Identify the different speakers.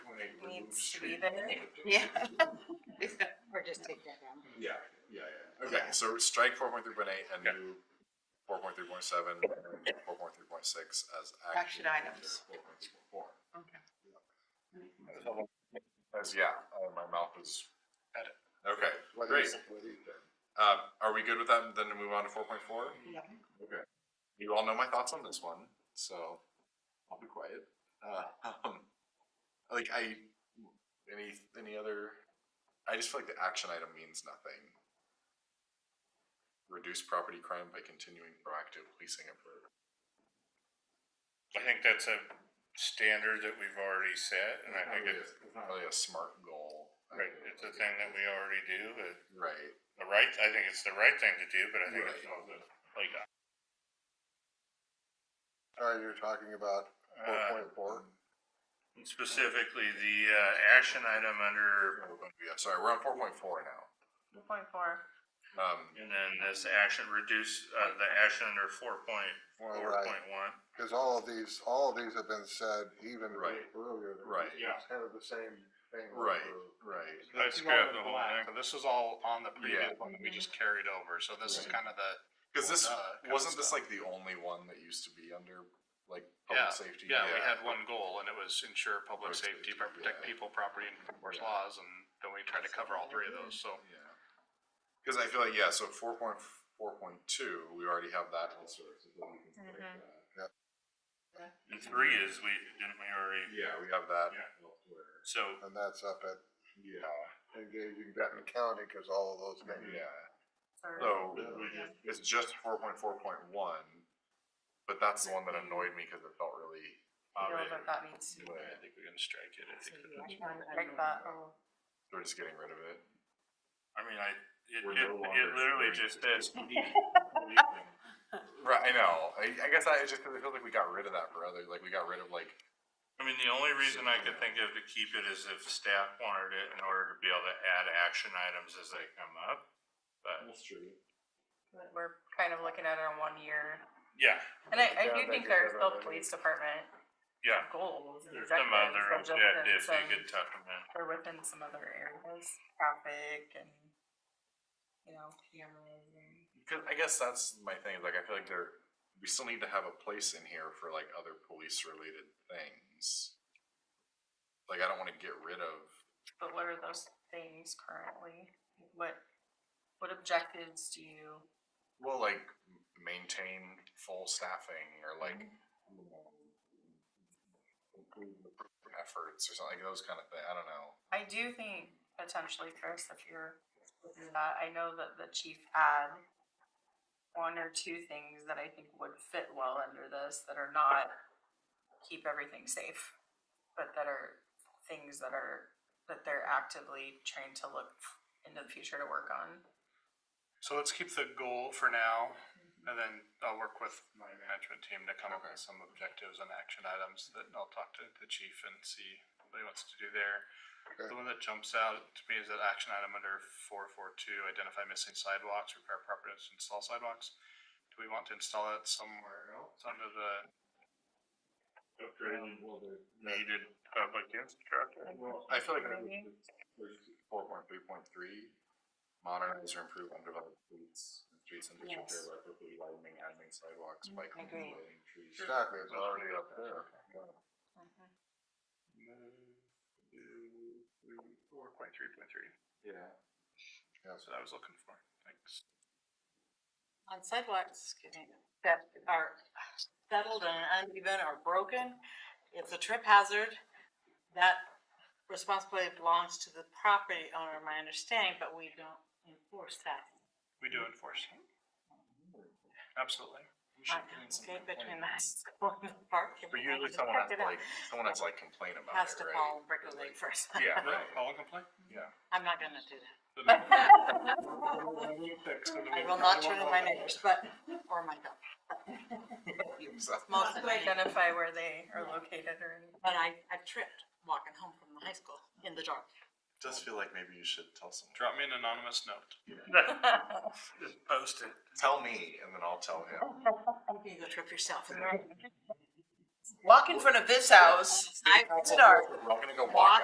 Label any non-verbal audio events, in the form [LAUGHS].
Speaker 1: needs to be there. [LAUGHS]
Speaker 2: Yeah. Or just take that down.
Speaker 3: Yeah, yeah, yeah, okay.
Speaker 4: Okay, so strike four point three point eight and do four point three point seven, four point three point six as
Speaker 5: Action
Speaker 4: action.
Speaker 5: items.
Speaker 4: Four point three point four.
Speaker 5: Okay.
Speaker 4: As, yeah, uh, my mouth is. Okay, great. Um, are we good with that? Then to move on to four point four?
Speaker 5: Yeah.
Speaker 4: Okay. You all know my thoughts on this one, so I'll be quiet. Uh, [LAUGHS] um, like I, any, any other, I just feel like the action item means nothing. Reduce property crime by continuing proactive policing effort.
Speaker 6: I think that's a standard that we've already set, and
Speaker 4: Not
Speaker 6: I think
Speaker 7: Oh,
Speaker 4: really a-
Speaker 6: it's,
Speaker 4: it's not really a smart goal. I
Speaker 6: right,
Speaker 4: mean,
Speaker 6: it's a thing that we already do, but
Speaker 4: Right,
Speaker 6: the right, I think it's the right thing to do, but I think it's
Speaker 4: Right.
Speaker 6: also, like,
Speaker 3: All right, you're talking about four
Speaker 6: uh,
Speaker 3: point four?
Speaker 6: specifically the, uh, action item under,
Speaker 4: yeah, sorry, we're on four point four now.
Speaker 1: Two point four.
Speaker 4: Um,
Speaker 6: and then this action reduce, uh, the action under four point,
Speaker 7: Oh,
Speaker 3: Well,
Speaker 6: four
Speaker 3: right,
Speaker 6: point one.
Speaker 3: because all of these, all of these have been said even
Speaker 4: Right.
Speaker 3: earlier. than-
Speaker 4: Right.
Speaker 3: It's Kind of the same thing.
Speaker 4: right,
Speaker 3: over.
Speaker 4: right.
Speaker 6: I scrapped the whole thing.
Speaker 7: So this was all on the
Speaker 4: Yeah.
Speaker 7: previous one that we just carried over, so this is kind of the,
Speaker 4: Because this
Speaker 7: Well, uh, kinda
Speaker 4: wasn't this
Speaker 7: stuff.
Speaker 4: like the only one that used to be under like public safety.
Speaker 7: yeah, we had one goal and it was ensure
Speaker 4: Public
Speaker 7: public safety,
Speaker 4: safety,
Speaker 7: protect
Speaker 4: yeah.
Speaker 7: people, property, and enforce
Speaker 4: Yeah.
Speaker 7: laws, and then we tried to cover all three of those, so.
Speaker 4: Because I feel like yeah, so four point four point two, we already have that. Also, so then we can take
Speaker 1: Mhm.
Speaker 4: that.
Speaker 6: And three is, we, didn't we already,
Speaker 4: Yeah, we have that.
Speaker 6: Yeah.
Speaker 4: elsewhere.
Speaker 6: so,
Speaker 3: And that's up at
Speaker 4: Yeah,
Speaker 3: engaging Benton County, because all of those things.
Speaker 4: yeah.
Speaker 1: Sorry.
Speaker 4: So
Speaker 6: we just,
Speaker 4: it's just four point four point one, but that's the one that annoyed me because it felt really.
Speaker 1: You know, but that needs to be
Speaker 4: way.
Speaker 1: there.
Speaker 7: I think we're gonna strike it, I
Speaker 2: So
Speaker 7: think.
Speaker 2: you
Speaker 1: Which
Speaker 2: action
Speaker 1: one?
Speaker 2: item
Speaker 1: Like
Speaker 2: number
Speaker 1: that,
Speaker 2: one.
Speaker 1: oh,
Speaker 4: So We're just getting rid of it.
Speaker 6: I mean, I, it,
Speaker 4: We're
Speaker 6: it,
Speaker 4: no
Speaker 6: it
Speaker 4: longer
Speaker 6: literally
Speaker 4: doing
Speaker 6: just
Speaker 4: this. [LAUGHS]
Speaker 6: says.
Speaker 4: Right, I know. I, I guess I it's just because I feel like we got rid of that for other, like we got rid of like
Speaker 6: I mean, the only reason I could think of to keep it is if staff wanted it in order to be able to add action items as they come up. But,
Speaker 1: but We're kind of looking at it on one year.
Speaker 6: yeah,
Speaker 1: And I, I
Speaker 3: Yeah,
Speaker 1: do
Speaker 3: they
Speaker 1: think
Speaker 3: did
Speaker 1: there are
Speaker 3: that
Speaker 1: still
Speaker 3: already.
Speaker 1: police department
Speaker 6: yeah,
Speaker 1: goals and
Speaker 6: there's some other
Speaker 1: objectives, so just in
Speaker 6: objectives you
Speaker 1: some-
Speaker 6: could tuck them in.
Speaker 1: or within some other areas, traffic and, you know, cameras and.
Speaker 4: Because I guess that's my thing. Like, I feel like there, we still need to have a place in here for like other police related things. Like, I don't want to get rid of.
Speaker 1: But what are those things currently? What, what objectives do you?
Speaker 4: Well, like m- maintain full staffing or like improve the efforts or something like those kind of things. I don't know.
Speaker 1: I do think potentially, Chris, if you're, looking at that, I know that the chief had one or two things that I think would fit well under this that are not keep everything safe, but that are things that are, that they're actively trying to look into the future to work on.
Speaker 7: So let's keep the goal for now, and then I'll work with my management team to come up with some objectives and action items that I'll talk to the chief and see what he wants to do there.
Speaker 3: Okay.
Speaker 7: The one that jumps out to me is that action item under four four two, identify missing sidewalks, repair property, and install sidewalks. Do we want to install it somewhere else under the
Speaker 6: Needed
Speaker 7: uh,
Speaker 6: public infrastructure.
Speaker 4: I feel like
Speaker 1: Maybe.
Speaker 4: four point three point three, modernize or improve underdeveloped streets, and streets and district
Speaker 1: Yes.
Speaker 4: area by quickly widening, adding sidewalks,
Speaker 1: Mm,
Speaker 4: bike.
Speaker 1: agree.
Speaker 4: trees.
Speaker 3: Exactly, it's
Speaker 4: It's
Speaker 3: already up there.
Speaker 7: four point three point three?
Speaker 4: Yeah.
Speaker 7: That's what I was looking for, thanks.
Speaker 2: On sidewalks that are settled and uneven or broken, it's a trip hazard. That responsibility belongs to the property owner, my understanding, but we don't enforce that.
Speaker 7: We do enforce. Absolutely.
Speaker 2: Okay, between the [LAUGHS] school and the park.
Speaker 4: But usually someone has to like, someone has to like complain about
Speaker 2: Has
Speaker 4: it,
Speaker 2: to
Speaker 4: right? [LAUGHS]
Speaker 2: call Brickley first. [LAUGHS]
Speaker 4: Yeah, right.
Speaker 7: All complaint?
Speaker 2: I'm not gonna do that. I
Speaker 7: I
Speaker 2: will not turn on my neighbors, but, or my dog.
Speaker 4: So-
Speaker 2: Most of
Speaker 1: To
Speaker 2: the time.
Speaker 1: identify where they are located or anything.
Speaker 2: But I, I tripped walking home from the high school in the dark.
Speaker 4: Does feel like maybe you should tell someone.
Speaker 7: Drop me an anonymous
Speaker 2: [LAUGHS]
Speaker 7: note.
Speaker 6: Just post it.
Speaker 4: Tell me, and then I'll tell him.
Speaker 2: You go trip yourself.
Speaker 1: Walk in front of this house.
Speaker 2: I,
Speaker 4: We're gonna go walk